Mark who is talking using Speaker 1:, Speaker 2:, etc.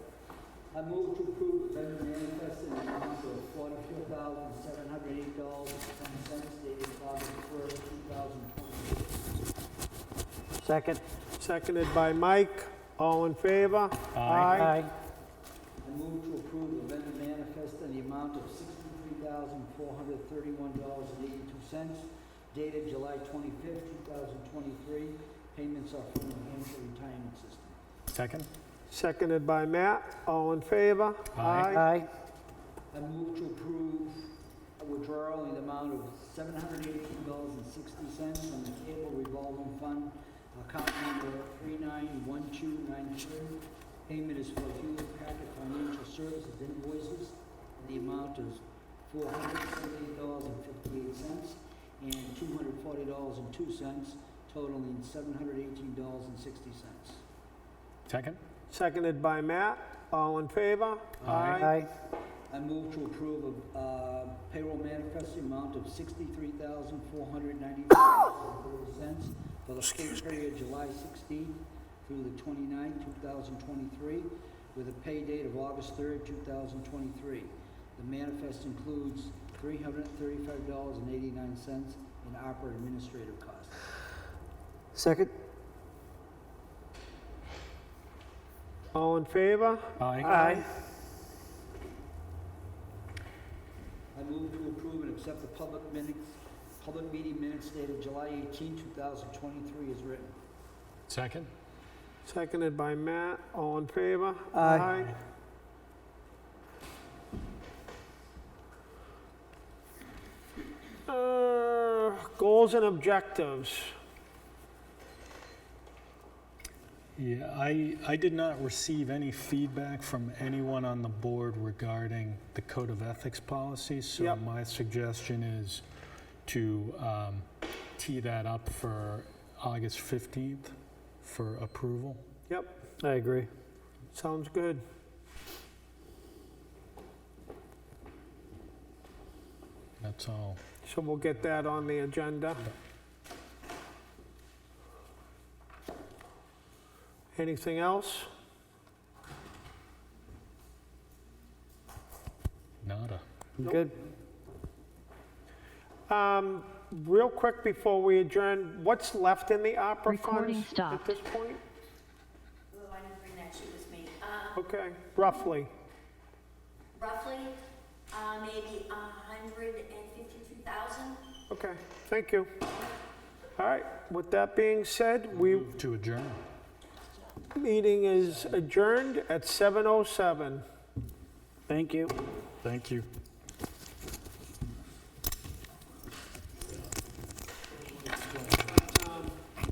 Speaker 1: I move to approve vendor manifest in the amount of forty-two thousand, seven hundred eight dollars and ten cents dated August first, two thousand twenty.
Speaker 2: Second.
Speaker 3: Seconded by Mike. All in favor?
Speaker 1: I move to approve the vendor manifest in the amount of sixty-three thousand, four hundred thirty-one dollars and eighty-two cents dated July twenty-fifth, two thousand twenty-three. Payments are from New Hampshire Retirement System.
Speaker 4: Second?
Speaker 3: Seconded by Matt. All in favor?
Speaker 4: Aye.
Speaker 2: Aye.
Speaker 1: I move to approve a withdrawal in the amount of seven hundred eighteen dollars and sixty cents from the cable revolving fund, account number three nine one two nine three. Payment is for Hewlett Packard Financial Services invoices, and the amount is four hundred seventy-eight dollars and fifty-eight cents and two hundred forty dollars and two cents, totaling seven hundred eighteen dollars and sixty cents.
Speaker 4: Second?
Speaker 3: Seconded by Matt. All in favor?
Speaker 2: Aye.
Speaker 1: I move to approve a uh, payroll manifest in the amount of sixty-three thousand, four hundred ninety-five cents for the pay period July sixteenth through the 29th, thousand twenty-three, with a pay date of August third, two thousand twenty-three. The manifest includes three hundred thirty-five dollars and eighty-nine cents in opera administrative costs.
Speaker 2: Second.
Speaker 3: All in favor?
Speaker 4: Aye.
Speaker 2: Aye.
Speaker 1: I move to approve and accept the public minutes, public meeting minutes dated July 18, thousand twenty-three as written.
Speaker 4: Second?
Speaker 3: Seconded by Matt. All in favor?
Speaker 2: Aye.
Speaker 3: Uh, Goals and objectives.
Speaker 4: Yeah, I, I did not receive any feedback from anyone on the board regarding the code of ethics policy. So
Speaker 3: Yep.
Speaker 4: my suggestion is to um, tee that up for August 15th for approval.
Speaker 3: Yep,
Speaker 2: I agree.
Speaker 3: sounds good.
Speaker 4: That's all.
Speaker 3: So we'll get that on the agenda. Anything else?
Speaker 4: Nada.
Speaker 2: Good.
Speaker 3: Um, Real quick before we adjourn, what's left in the opera
Speaker 5: Recording
Speaker 3: funds at
Speaker 5: stopped.
Speaker 3: this point?
Speaker 6: Oh, I didn't bring that sheet with me. Uh,
Speaker 3: Okay, roughly.
Speaker 6: Roughly, uh, maybe a hundred and fifty-two thousand.
Speaker 3: Okay, thank you. All right, with that being said, we,
Speaker 4: Move to adjourn.
Speaker 3: meeting oh is adjourned at 7:07.
Speaker 2: Thank you.
Speaker 4: Thank you.